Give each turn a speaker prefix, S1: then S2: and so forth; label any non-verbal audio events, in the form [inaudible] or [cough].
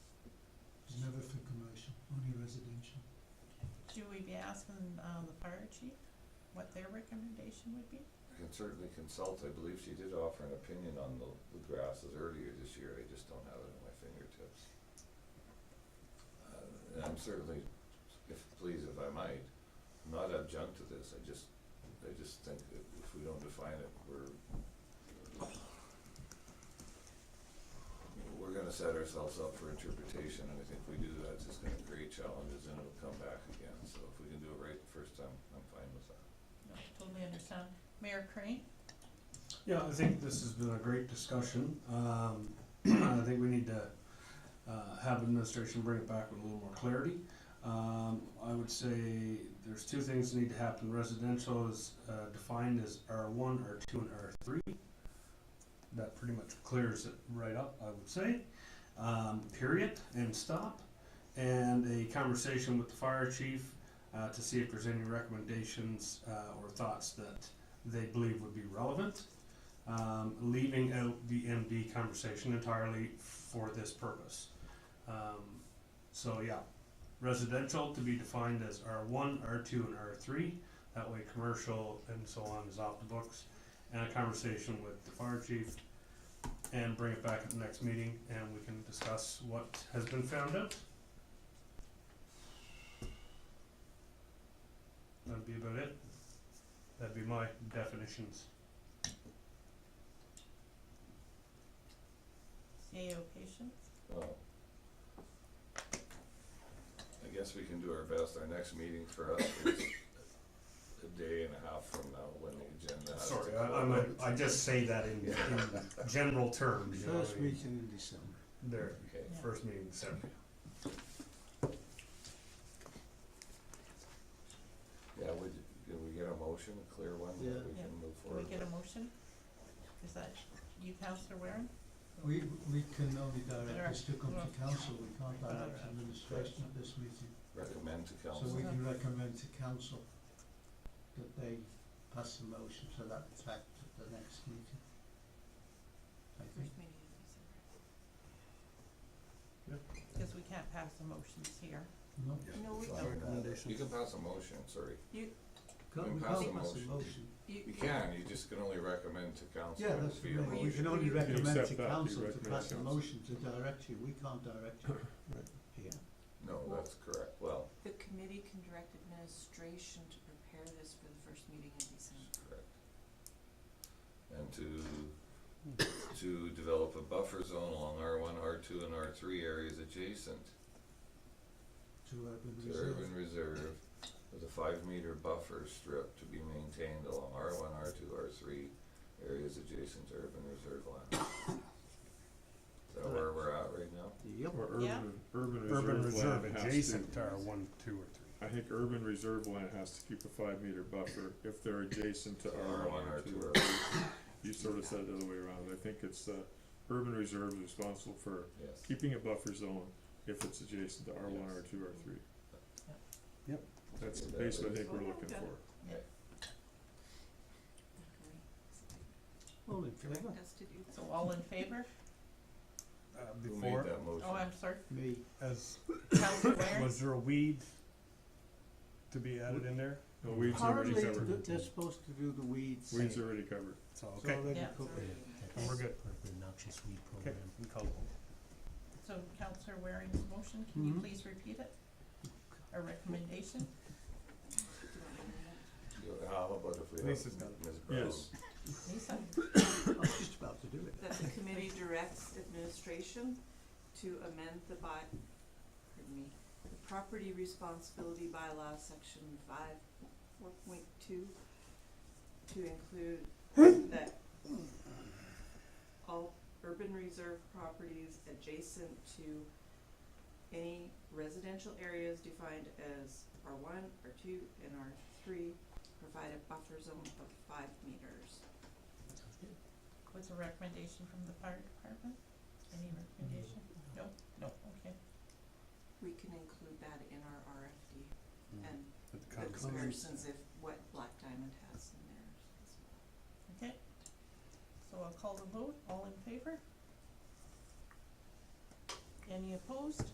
S1: Only residential.
S2: Should we be asking, um, the fire chief what their recommendation would be?
S3: I can certainly consult, I believe she did offer an opinion on the, the grasses earlier this year, I just don't have it at my fingertips. Uh, And I'm certainly, if, please, if I might, I'm not adjunct to this, I just, I just think that if we don't define it, we're, we're gonna set ourselves up for interpretation, and I think if we do that, it's just gonna create challenges, and it'll come back again, so if we can do it right the first time, I'm fine with that.
S2: No, totally understand. Mayor Crane?
S4: Yeah, I think this has been a great discussion. Um, [clears throat] I think we need to uh, have administration bring it back with a little more clarity. Um, I would say there's two things that need to happen. Residential is uh, defined as R1, R2, and R3. That pretty much clears it right up, I would say. Um, period and stop. And a conversation with the fire chief uh, to see if there's any recommendations uh, or thoughts that they believe would be relevant, um, leaving out the MD conversation entirely for this purpose. Um, so yeah, residential to be defined as R one, R two, and R three, that way commercial and so on is off the books. And a conversation with the fire chief and bring it back at the next meeting and we can discuss what has been found out. That'd be about it. That'd be my definitions.
S2: CAO patients?
S3: Well, I guess we can do our best. Our next meeting for us is a day and a half from now when the agenda has to
S4: Sorry,
S3: go
S4: I, I'm
S3: out.
S4: a, I just say that in, in general terms. you know,
S1: First
S4: I mean,
S1: weekend in December.
S4: There,
S3: Okay,
S2: Yeah.
S4: first meeting, Saturday.
S3: yeah, would, can we get a motion, a clear one
S1: Yeah.
S3: that we
S2: Yeah.
S3: can move
S2: Can we
S3: forward?
S2: get a motion? Is that you, Counselor Warren?
S1: We, we can only direct this to come
S2: Direct.
S1: to council, we can't direct administration at this meeting.
S3: Recommend to
S1: So
S3: council.
S1: we can recommend to council that they pass the motion to that effect at the next meeting. I think,
S2: Because we can't pass the motions here.
S1: no,
S5: No, we
S3: Fine.
S5: don't.
S3: You can pass a motion, sorry.
S1: can't,
S3: can
S1: we
S3: pass the
S1: can't pass the
S3: motion.
S1: motion.
S3: You can, you just can only recommend to council.
S1: Yeah,
S3: It
S1: that's
S3: would be a
S1: what I mean. we
S3: motion.
S1: can only
S5: You
S1: recommend
S6: accept
S1: to
S6: that, you
S1: council to
S6: recommend
S1: pass the
S6: council.
S1: motion to direct you, we can't direct you here.
S3: No, that's correct. Well,
S5: The committee can direct administration to prepare this for the first meeting in December.
S3: that's correct. And to, to develop a buffer zone along R one, R two, and R three areas adjacent
S1: to urban
S3: to
S1: reserve.
S3: urban reserve with a five meter buffer strip to be maintained along R one, R two, R three areas adjacent to urban reserve land. Is that where we're at right now?
S1: Yep.
S6: Or
S2: Yeah.
S6: urban, urban
S4: Urban
S6: reserve
S4: reserve
S6: land has to,
S4: adjacent to our one, two, or three.
S6: I think urban reserve land has to keep a five meter buffer if they're adjacent to R one or two.
S3: R three.
S6: You sort of said it the other way around, I think it's, uh, urban reserve is responsible for
S3: Yes,
S6: keeping a buffer zone if it's adjacent to R one,
S3: Yes.
S6: R two, R three.
S2: Yep.
S4: Yep.
S6: That's
S3: Yeah, that
S6: basically I
S3: is-
S6: think we're looking for.
S1: All in
S5: Direct
S1: favour?
S5: us to do that.
S2: So all in favor?
S4: Uh,
S3: who made
S4: before,
S3: that motion?
S2: Oh, I'm sorry.
S1: Me.
S4: as, [coughs]
S2: Counselor Warren?
S4: was there a weed to be added in there?
S6: No, weeds are already
S1: Apparently,
S6: covered,
S1: th- they're supposed to do the weeds.
S6: weeds are already covered.
S4: So,
S1: It's
S4: okay,
S1: already
S2: Yeah, it's
S1: covered.
S5: already-
S4: and we're good.
S1: noxious weed
S4: Okay, we call it.
S2: So Counselor Waring's motion, can you
S1: Mhm.
S2: please repeat it? Our recommendation?
S5: Do you want to amend that?
S3: You- How about if we have Ms.
S4: Lisa's got
S3: Brown?
S6: Yes.
S2: Lisa?
S1: I was just about to do it.
S5: That the committee directs administration to amend the by, pardon me, the property responsibility bylaw, section five, four point two, to include that all urban reserve properties adjacent to any residential areas defined as R one, R two, and R three provide a buffer zone of five meters.
S2: Was a recommendation from the fire department? Any recommendation? No, no, okay.
S5: We can include that in our RFD
S4: Mm-hmm.
S5: and
S4: With the
S5: the
S4: comments.
S5: comparisons if what Black Diamond has in theirs as well.
S2: Okay, so I'll call the vote, all in favor? Any opposed?